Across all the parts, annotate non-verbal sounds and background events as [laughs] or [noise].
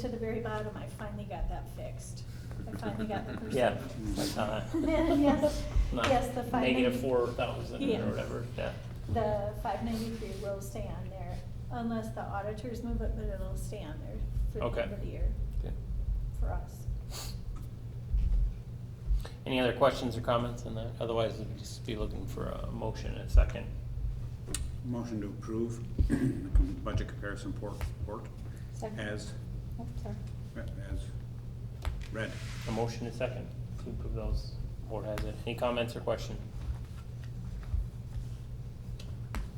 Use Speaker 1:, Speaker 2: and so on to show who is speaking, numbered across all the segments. Speaker 1: to the very bottom, I finally got that fixed. I finally got the percent.
Speaker 2: Yeah, I saw that.
Speaker 1: [laughs] Yes,
Speaker 2: Not
Speaker 1: yes, the five ninety.
Speaker 2: Negative four thousand
Speaker 1: Yeah.
Speaker 2: or whatever, yeah.
Speaker 1: The five ninety-three will stay on there unless the auditors move it, but it'll stay on there for the
Speaker 2: Okay.
Speaker 1: end of the year
Speaker 2: Okay.
Speaker 1: for us.
Speaker 2: Any other questions or comments on that? Otherwise, we'd just be looking for a motion and a second.
Speaker 3: Motion to approve [clears throat] budget comparison port, port as, as read.
Speaker 2: A motion and a second to approve those. Board has it. Any comments or question?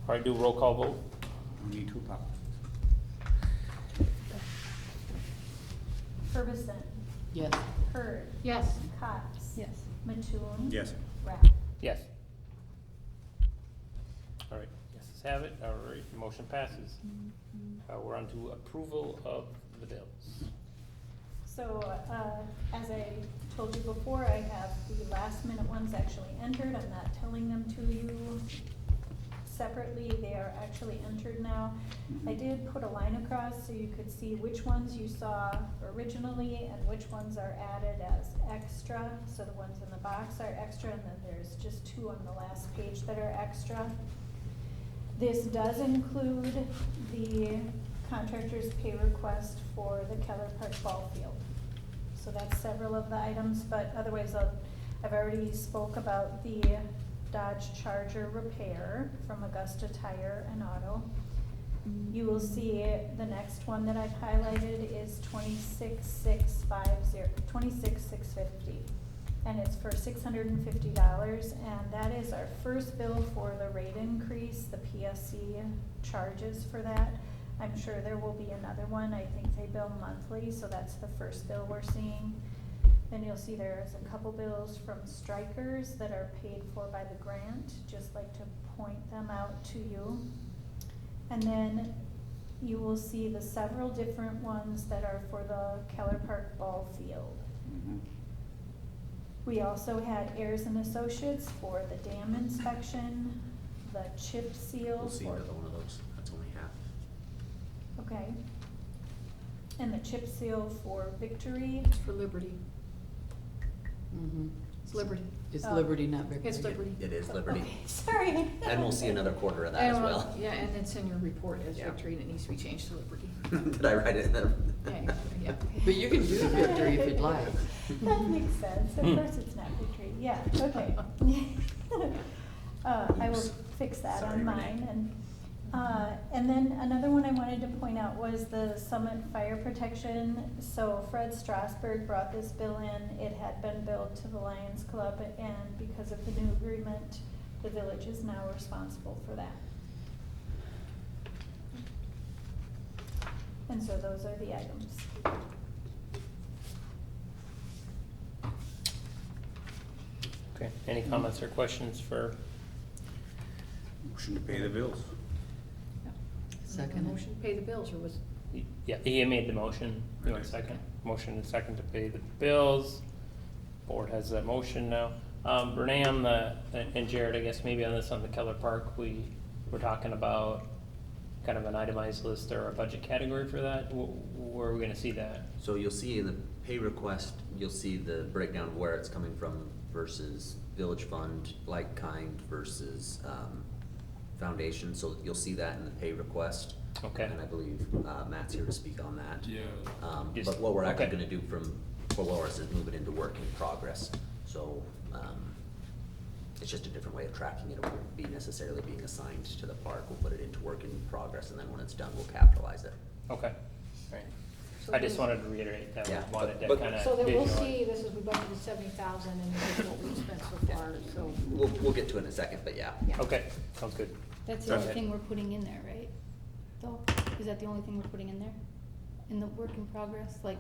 Speaker 2: All right, do roll call vote.
Speaker 3: We need two pop.
Speaker 1: Ferguson,
Speaker 4: Yes.
Speaker 1: Hurd,
Speaker 4: Yes.
Speaker 1: Cox.
Speaker 5: Yes.
Speaker 1: Mattoon.
Speaker 3: Yes.
Speaker 1: Rapp.
Speaker 2: Yes. All right, yeses have it. All right, motion passes. Uh, we're on to approval of the bills.
Speaker 1: So, uh, as I told you before, I have the last minute ones actually entered, I'm not telling them to you separately, they are actually entered now. I did put a line across so you could see which ones you saw originally and which ones are added as extra. So the ones in the box are extra, and then there's just two on the last page that are extra. This does include the contractor's pay request for the Keller Park Ball Field. So that's several of the items, but otherwise, I'll- I've already spoke about the Dodge Charger repair from Augusta Tire and Auto. You will see the next one that I've highlighted is twenty-six six five zero, twenty-six six fifty. And it's for six hundred and fifty dollars, and that is our first bill for the rate increase, the PSC charges for that. I'm sure there will be another one, I think they bill monthly, so that's the first bill we're seeing. Then you'll see there's a couple bills from strikers that are paid for by the grant, just like to point them out to you. And then you will see the several different ones that are for the Keller Park Ball Field.
Speaker 3: Mm-hmm.
Speaker 1: We also had Ayers and Associates for the dam inspection, the chip seal.
Speaker 6: We'll see
Speaker 1: for-
Speaker 6: another one of those, that's only half.
Speaker 1: Okay. And the chip seal for Victory. [laughs]
Speaker 4: It's for Liberty. Mm-hmm. It's Liberty. It's
Speaker 1: Oh.
Speaker 4: Liberty, not Victory.
Speaker 7: It's Liberty.
Speaker 6: It is [laughs] Liberty,
Speaker 1: Okay, Sorry.
Speaker 6: and we'll see another quarter of that as
Speaker 7: And,
Speaker 6: well.
Speaker 7: Yeah, and it's in your report as
Speaker 6: Yeah.
Speaker 7: victory, and it needs to be changed to liberty.
Speaker 6: [laughs] Did I write it in there?
Speaker 7: Yeah, yeah.
Speaker 4: But you can do Victory if you'd like.
Speaker 1: [laughs] That makes sense, of
Speaker 2: Hmm.
Speaker 1: course it's not Victory, yeah,
Speaker 6: [laughs]
Speaker 1: okay. Uh, I will
Speaker 6: Oops.
Speaker 1: fix that
Speaker 6: Sorry,
Speaker 1: on
Speaker 6: Renee.
Speaker 1: mine and, uh, and then another one I wanted to point out was the Summit Fire Protection. So Fred Strasberg brought this bill in, it had been billed to the Lions Club and because of the new agreement, the village is now responsible for that. And so those are the items.
Speaker 2: Okay, any comments or questions for
Speaker 3: Motion to pay the bills.
Speaker 4: Second.
Speaker 7: Motion to pay the bills, or was,
Speaker 2: Yeah, he made the motion. You want a second? Motion and second to pay the bills. Board has that motion now. Um, Renee on the, and Jared, I guess maybe on this, on the Keller Park, we were talking about kind of an itemized list or a budget category for that. Wh- Where are we gonna see that?
Speaker 6: [laughs] So you'll see in the pay request, you'll see the breakdown of where it's coming from versus village fund, like kind versus, um, foundation, so you'll see that in the pay request.
Speaker 2: Okay.
Speaker 6: And I believe, uh, Matt's here to speak on that.
Speaker 8: Yeah.
Speaker 6: Um,
Speaker 2: Yes.
Speaker 6: but what we're actually
Speaker 2: Okay.
Speaker 6: gonna do from, for Loris is move it into work in progress, so, um, it's just a different way of tracking it, it won't be necessarily being assigned to the park, we'll put it into work in progress, and then when it's done, we'll capitalize it.
Speaker 2: Okay, alright. I just wanted to reiterate that, we
Speaker 6: Uh, Yeah,
Speaker 2: wanted to
Speaker 6: but-
Speaker 2: kinda.
Speaker 7: so that we'll
Speaker 2: visualize.
Speaker 7: see, this is, we budgeted seventy thousand, and this is what we spent so far, so.
Speaker 6: We'll, we'll get to it in a second, but yeah.
Speaker 7: Yeah.
Speaker 2: Okay, sounds good.
Speaker 5: That's the only
Speaker 2: Okay.
Speaker 5: thing we're putting in there, right? Though, is that the only thing we're putting in there? In the work in progress, like,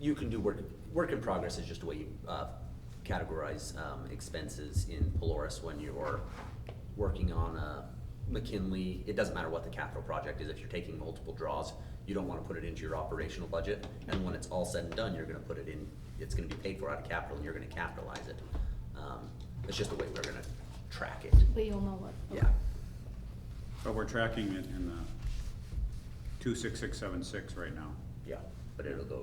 Speaker 6: You can do work, work in progress is just a way you, uh, categorize, um, expenses in Polaris when you're working on a McKinley, it doesn't matter what the capital project is, if you're taking multiple draws, you don't wanna put it into your operational budget, and when it's all said and done, you're gonna put it in, it's gonna be paid for out of capital, and you're gonna capitalize it. Um, it's just the way we're gonna track it,
Speaker 5: but you'll know what.
Speaker 6: yeah.
Speaker 3: But we're tracking it in the two six six seven six right now.
Speaker 6: Yeah. But it'll go